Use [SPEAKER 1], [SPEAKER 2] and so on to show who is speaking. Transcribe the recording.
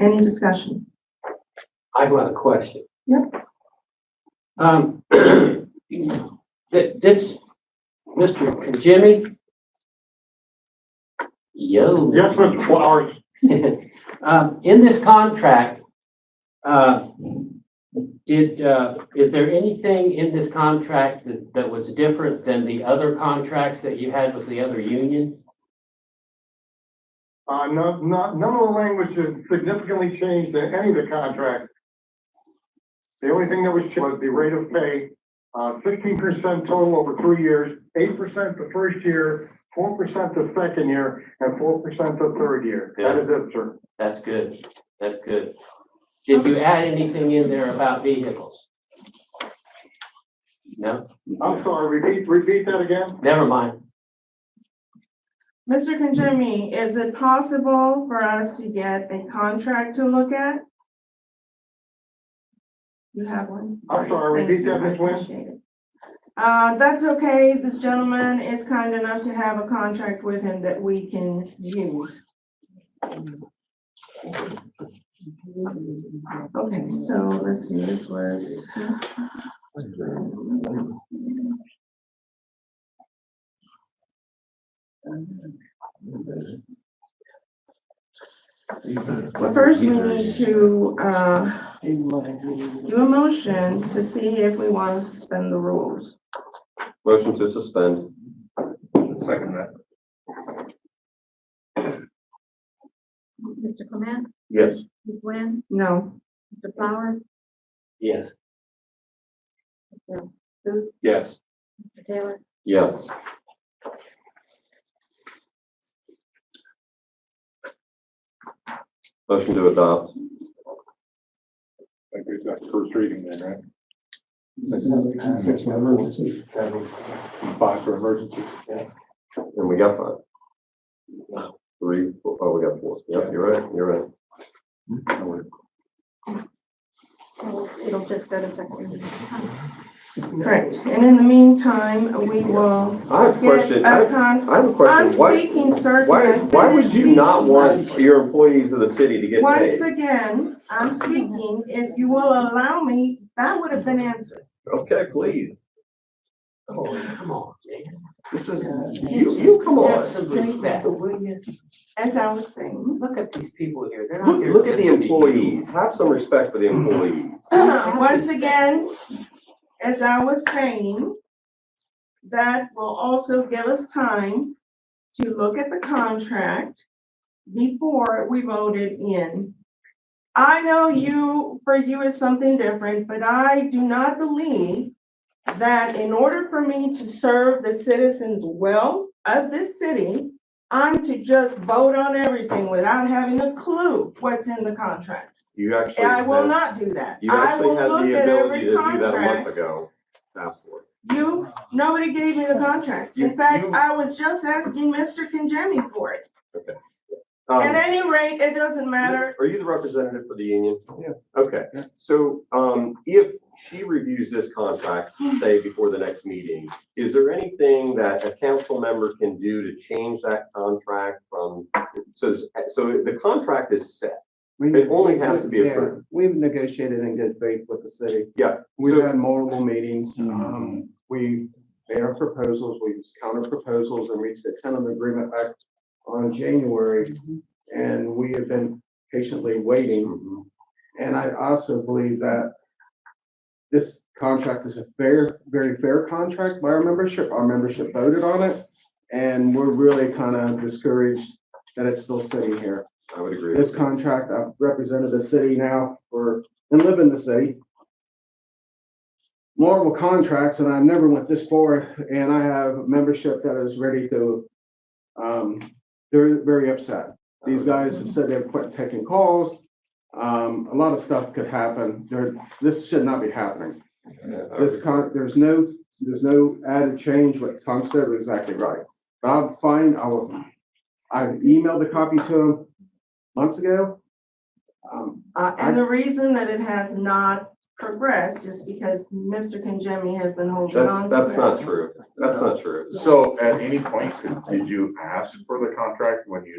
[SPEAKER 1] Any discussion?
[SPEAKER 2] I've got a question.
[SPEAKER 1] Yeah.
[SPEAKER 2] Um, th- this, Mr. Jimmy? Yo.
[SPEAKER 3] Yes, Mr. Flowers,
[SPEAKER 2] Um, in this contract, uh, did, uh, is there anything in this contract that, that was different than the other contracts that you had with the other union?
[SPEAKER 3] uh, no, no, none of the language has significantly changed in any of the contracts. The only thing that was changed was the rate of pay, uh, fifteen percent total over three years, eight percent the first year, four percent the second year, and four percent the third year. That is it, sir.
[SPEAKER 2] That's good. That's good. Did you add anything in there about vehicles? No?
[SPEAKER 3] I'm sorry, repeat, repeat that again?
[SPEAKER 2] Never mind.
[SPEAKER 1] Mr. Conjemi, is it possible for us to get a contract to look at? You have one?
[SPEAKER 3] I'm sorry, repeat that, Ms. Nguyen.
[SPEAKER 1] Wynn. Uh, that's okay. This gentleman is kind enough to have a contract with him that we can use. Okay, so let's see, this was. Well, first we need to, uh, do a motion to see if we want to suspend the rules.
[SPEAKER 4] Motion to suspend.
[SPEAKER 5] Second that.
[SPEAKER 6] Mr. Clement,
[SPEAKER 4] Yes.
[SPEAKER 6] Ms. Nguyen,
[SPEAKER 1] No,
[SPEAKER 6] Mr. Flowers,
[SPEAKER 2] Yes.
[SPEAKER 5] Yes.
[SPEAKER 6] Mr. Taylor,
[SPEAKER 4] Yes. Motion to adopt.
[SPEAKER 5] I think we've got first reading then, right?
[SPEAKER 3] Six
[SPEAKER 5] emergency. Five for emergency.
[SPEAKER 4] And we got five. Three, four, oh, we got four. Yep, you're right, you're right.
[SPEAKER 6] It'll- it'll just go to second reading.
[SPEAKER 1] correct. And in the meantime, we will
[SPEAKER 4] I have a
[SPEAKER 1] get
[SPEAKER 4] question.
[SPEAKER 1] a
[SPEAKER 4] I
[SPEAKER 1] con,
[SPEAKER 4] I have a
[SPEAKER 1] I'm
[SPEAKER 4] question. Why,
[SPEAKER 1] speaking, sir.
[SPEAKER 4] why,
[SPEAKER 1] Can I
[SPEAKER 4] why would
[SPEAKER 1] finish,
[SPEAKER 4] you not
[SPEAKER 1] please?
[SPEAKER 4] want your employees of the city to get
[SPEAKER 1] Once
[SPEAKER 4] paid?
[SPEAKER 1] again, I'm speaking, if you will allow me, that would have been answered.
[SPEAKER 4] Okay, please.
[SPEAKER 2] Oh, come on, man.
[SPEAKER 4] This is, you, you come
[SPEAKER 2] Have
[SPEAKER 4] on.
[SPEAKER 2] some respect, will you?
[SPEAKER 1] As I was saying,
[SPEAKER 2] Look at these people here. They're not
[SPEAKER 4] Look,
[SPEAKER 2] here.
[SPEAKER 4] look at the
[SPEAKER 2] just to be
[SPEAKER 4] employees. Have some respect for the employees.
[SPEAKER 1] once again, as I was saying, that will also give us time to look at the contract before we voted in. I know you, for you is something different, but I do not believe that in order for me to serve the citizens well of this city, I'm to just vote on everything without having a clue what's in the contract.
[SPEAKER 4] You actually.
[SPEAKER 1] And I will
[SPEAKER 4] have-
[SPEAKER 1] not do that.
[SPEAKER 4] You
[SPEAKER 1] I will
[SPEAKER 4] actually had
[SPEAKER 1] look
[SPEAKER 4] the
[SPEAKER 1] at
[SPEAKER 4] ability
[SPEAKER 1] every
[SPEAKER 4] to do that a
[SPEAKER 1] contract.
[SPEAKER 4] month ago. Ask for it.
[SPEAKER 1] You, nobody gave me the contract.
[SPEAKER 4] You-
[SPEAKER 1] In fact,
[SPEAKER 4] you-
[SPEAKER 1] I was just asking Mr. Conjemi for it.
[SPEAKER 4] Um,
[SPEAKER 1] At any rate, it doesn't matter.
[SPEAKER 4] Are you the representative for the union?
[SPEAKER 5] Yeah.
[SPEAKER 4] Okay,
[SPEAKER 5] Yeah.
[SPEAKER 4] so um if she reviews this contract,
[SPEAKER 1] Hmm.
[SPEAKER 4] say before the next meeting, is there anything that a council member can do to change that contract from, so so the contract is set.
[SPEAKER 7] We-
[SPEAKER 4] It only has to be
[SPEAKER 7] yeah,
[SPEAKER 4] approved.
[SPEAKER 7] We've negotiated in good faith with the city.
[SPEAKER 4] Yeah,
[SPEAKER 7] We've
[SPEAKER 4] so- Mm-hmm.
[SPEAKER 7] had multiple meetings. Um, we made our proposals, we used counter proposals and reached a tentative agreement back on January.
[SPEAKER 4] Mm-hmm.
[SPEAKER 7] And we have been patiently waiting.
[SPEAKER 4] Mm-hmm.
[SPEAKER 7] And I also believe that this contract is a fair, very fair contract by our membership. Our membership voted on it. And we're really kind of discouraged that it's still sitting here
[SPEAKER 4] I would agree.
[SPEAKER 7] this
[SPEAKER 4] with
[SPEAKER 7] contract, I've represented the city now for, and live in the city. Multiple contracts, and I never went this far, and I have membership that is ready to, um, they're very upset.
[SPEAKER 4] you.
[SPEAKER 7] These guys have said they've quit taking calls. Um, a lot of stuff could happen. There, this should not be happening.
[SPEAKER 4] I would-
[SPEAKER 7] This con, there's no, there's no added change. What Tom said was exactly right. But I'm fine. I will, I emailed the copy to him months ago. Um,
[SPEAKER 1] Uh, and the reason that it has not progressed is because Mr. Conjemi has been holding on to
[SPEAKER 4] That's
[SPEAKER 1] it.
[SPEAKER 4] that's not true. That's not true.
[SPEAKER 5] So at any point, did you ask for the contract when you